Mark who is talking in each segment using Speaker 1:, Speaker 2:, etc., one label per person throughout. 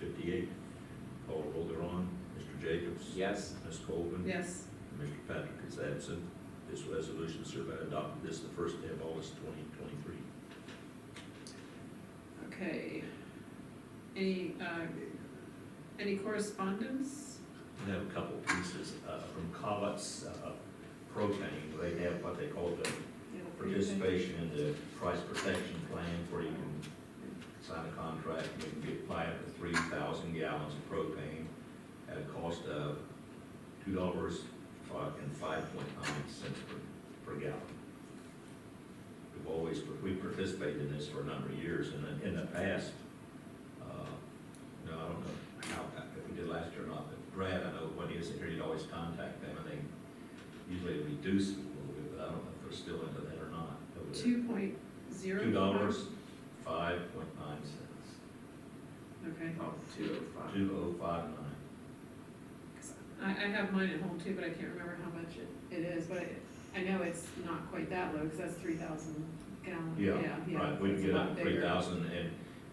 Speaker 1: forty-eight. Call roll thereon. Mr. Jacobs?
Speaker 2: Yes.
Speaker 1: Ms. Colvin?
Speaker 3: Yes.
Speaker 1: And Mr. Patrick is absent. This resolution hereby adopted this the first day of August twenty twenty-three.
Speaker 3: Okay. Any, uh, any correspondence?
Speaker 1: I have a couple pieces uh, from Collett's uh, propane. They have what they call the participation in the price protection plan where you can sign a contract, and you can get, buy up to three thousand gallons of propane at a cost of two dollars and five point nine cents per, per gallon. We've always, we participated in this for a number of years, and in, in the past, uh, no, I don't know how, if we did last year or not, but Brad, I know when he was here, you'd always contact them, and they usually reduce it a little bit, but I don't know if they're still into that or not. over there.
Speaker 3: Two point zero?
Speaker 1: Two dollars, five point nine cents,
Speaker 3: Okay,
Speaker 2: Oh, two oh five.
Speaker 1: two oh five nine.
Speaker 3: 'Cause I, I have mine at home too, but I can't remember how much it, it is, but I know it's not quite that low, because that's three thousand gallon, yeah, yeah.
Speaker 1: Right, we
Speaker 3: it's
Speaker 1: can
Speaker 3: a
Speaker 1: get
Speaker 3: lot
Speaker 1: up
Speaker 3: bigger.
Speaker 1: three thousand and,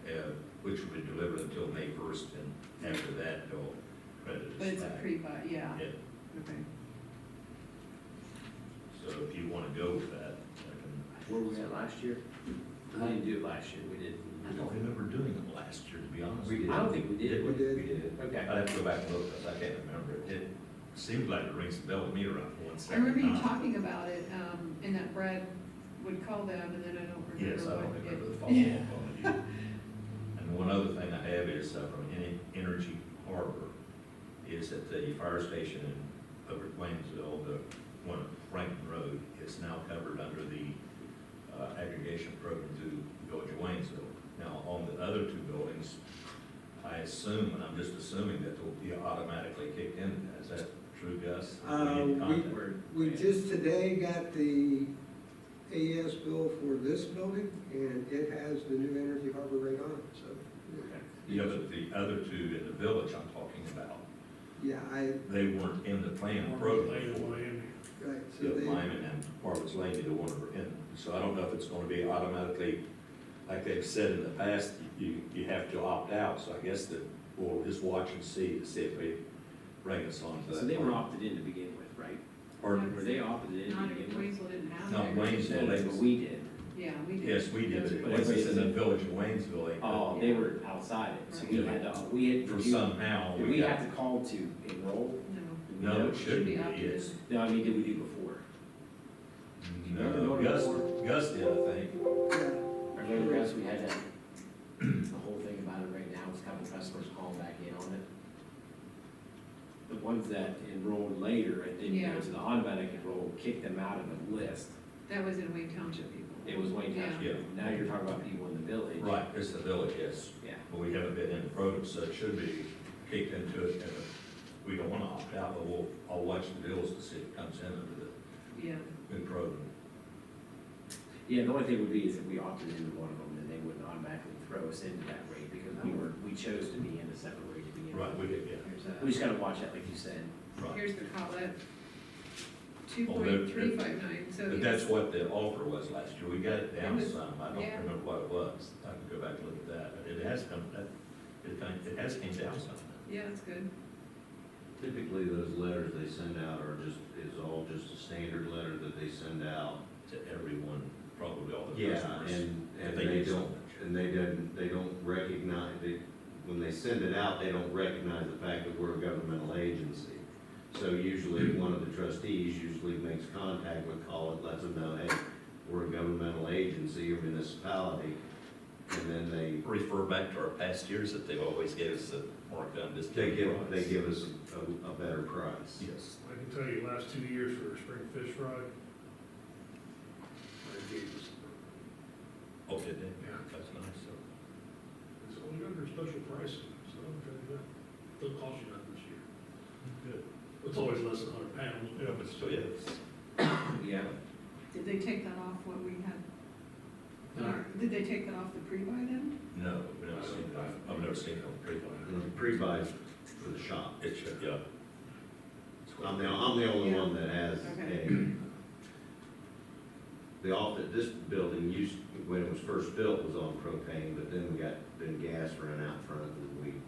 Speaker 1: uh, which will be delivered until May first, and after that, they'll credit us back.
Speaker 3: But it's a pre-buy, yeah,
Speaker 1: Yeah,
Speaker 3: okay.
Speaker 1: so if you wanna go with that, I can.
Speaker 2: Where were we at last year? We didn't do it last year, we did.
Speaker 1: I don't remember doing them last year, to be honest.
Speaker 2: We
Speaker 1: with you.
Speaker 2: did, I don't think we did.
Speaker 1: We did. Uh, We did. I'd
Speaker 2: Okay.
Speaker 1: have to go back and look, 'cause I can't remember. It did- seemed like it rings a bell with me around one
Speaker 3: I
Speaker 1: second.
Speaker 3: remember you talking about it, um, and that Brad would call them, and then I don't remember
Speaker 1: Yes, I don't
Speaker 3: what it-
Speaker 1: remember the
Speaker 3: Yeah.
Speaker 1: follow-up on it either. And one other thing I have is uh, from En- Energy Harbor, is at the fire station in Upper Plainsville, the uh, one on Franklin Road, is now covered under the uh, aggregation program through Village of Waynesville. Now, on the other two buildings, I assume, and I'm just assuming that they'll be automatically kicked in, is that true, Gus?
Speaker 4: Uh,
Speaker 1: need to
Speaker 4: we-
Speaker 1: contact-
Speaker 4: We just today got the AES bill for this building, and it has the new Energy Harbor rate on it, so.
Speaker 1: Yeah, but the other two in the village I'm talking about,
Speaker 4: Yeah, I,
Speaker 1: they weren't in the plan program.
Speaker 4: right, so
Speaker 1: The
Speaker 4: they,
Speaker 1: Lyman and Harvard's Lane, either one were in, so I don't know if it's gonna be automatically, like they've said in the past, you, you have to opt out, so I guess that we'll just watch and see, to see if they bring us on to that.
Speaker 2: So they were opted in to begin with, right?
Speaker 1: Or,
Speaker 2: Were they opted in
Speaker 3: Not
Speaker 2: to begin
Speaker 3: if
Speaker 2: with?
Speaker 3: Waynesville didn't have.
Speaker 1: No,
Speaker 3: it.
Speaker 1: Waynesville.
Speaker 2: No, But we did.
Speaker 3: Yeah, we did.
Speaker 1: yes, we did, it, but it was in the village of Waynesville. they-
Speaker 2: Oh, they were outside it, so we had to, we had. to
Speaker 1: For
Speaker 2: do-
Speaker 1: somehow,
Speaker 2: Did
Speaker 1: we
Speaker 2: we have
Speaker 1: got,
Speaker 2: to call to enroll?
Speaker 3: No,
Speaker 2: Did we
Speaker 1: no,
Speaker 2: know?
Speaker 1: it
Speaker 3: should
Speaker 1: shouldn't
Speaker 3: be
Speaker 1: be,
Speaker 3: up to
Speaker 1: it's,
Speaker 3: them.
Speaker 2: No, I mean, did we do before?
Speaker 1: no, Gus, Gus did, I think.
Speaker 4: yeah,
Speaker 2: I remember guys, we had that, the whole thing about it right now is having customers call back in on it. The ones that enrolled later and didn't
Speaker 3: Yeah.
Speaker 2: go to the automatic enroll, kicked them out of the list.
Speaker 3: that was in Wayne Township people.
Speaker 2: It was Wayne
Speaker 1: Yeah.
Speaker 2: Township. Now you're talking about people in the village.
Speaker 1: Right, it's the village, yes.
Speaker 2: Yeah.
Speaker 1: But we haven't been in the program, so it should be kicked into it, and we don't wanna opt out, but we'll, I'll watch the bills to see if it comes in under
Speaker 3: Yeah,
Speaker 1: the new program.
Speaker 2: Yeah, the only thing would be is if we opted into one of them, then they wouldn't automatically throw us into that rate because we were, we chose to be in a separate rate to begin with.
Speaker 1: Right, we did, yeah,
Speaker 4: here's
Speaker 2: We
Speaker 4: that.
Speaker 2: just gotta watch that, like you said.
Speaker 1: right.
Speaker 3: here's the Collet, two
Speaker 1: Oh, they're-
Speaker 3: point three five nine, so.
Speaker 1: But
Speaker 3: it
Speaker 1: that's
Speaker 3: was-
Speaker 1: what the offer was last year, we got it down
Speaker 3: It was-
Speaker 1: some, I don't
Speaker 3: yeah.
Speaker 1: remember what it was, I can go back and look at that, but it has come, that, it, kind- it has came down some.
Speaker 3: Yeah, that's good.
Speaker 5: Typically, those letters they send out are just, is all just a standard letter that they send out.
Speaker 1: To everyone, probably all the
Speaker 5: Yeah,
Speaker 1: customers.
Speaker 5: and,
Speaker 1: if
Speaker 5: and
Speaker 1: they
Speaker 5: they
Speaker 1: do
Speaker 5: don't,
Speaker 1: something.
Speaker 5: and they don't, they don't recognize, they, when they send it out, they don't recognize the fact that we're a governmental agency. So usually, one of the trustees usually makes contact with Collin, lets them know, hey, we're a governmental agency or municipality. And then they
Speaker 1: Refer back to our past years that they've always gave us a markdown discount.
Speaker 5: They give, they
Speaker 1: price.
Speaker 5: give us a, a better price.
Speaker 1: Yes.
Speaker 6: I can tell you, last two years for a spring fish fry, I gave us,
Speaker 1: Oh, did they?
Speaker 6: Yeah.
Speaker 1: That's nice, so.
Speaker 6: it's only under special pricing, so I'm trying to, they'll cost you nothing this year.
Speaker 1: Good.
Speaker 6: It's always less than a hundred pounds.
Speaker 1: Yeah, but still, yeah, it's-
Speaker 2: Yeah.
Speaker 3: Did they take that off what we had?
Speaker 2: No.
Speaker 3: Or Did they take that off the pre-buy then?
Speaker 1: no, we've never seen, I've- I've never seen them pre
Speaker 5: And the Pre-buy for the shop.
Speaker 1: It should, yeah.
Speaker 5: I'm the, I'm the only one that has
Speaker 3: Okay.
Speaker 5: a. The office, this building used, when it was first built, was on propane, but then we got, then gas ran out front and we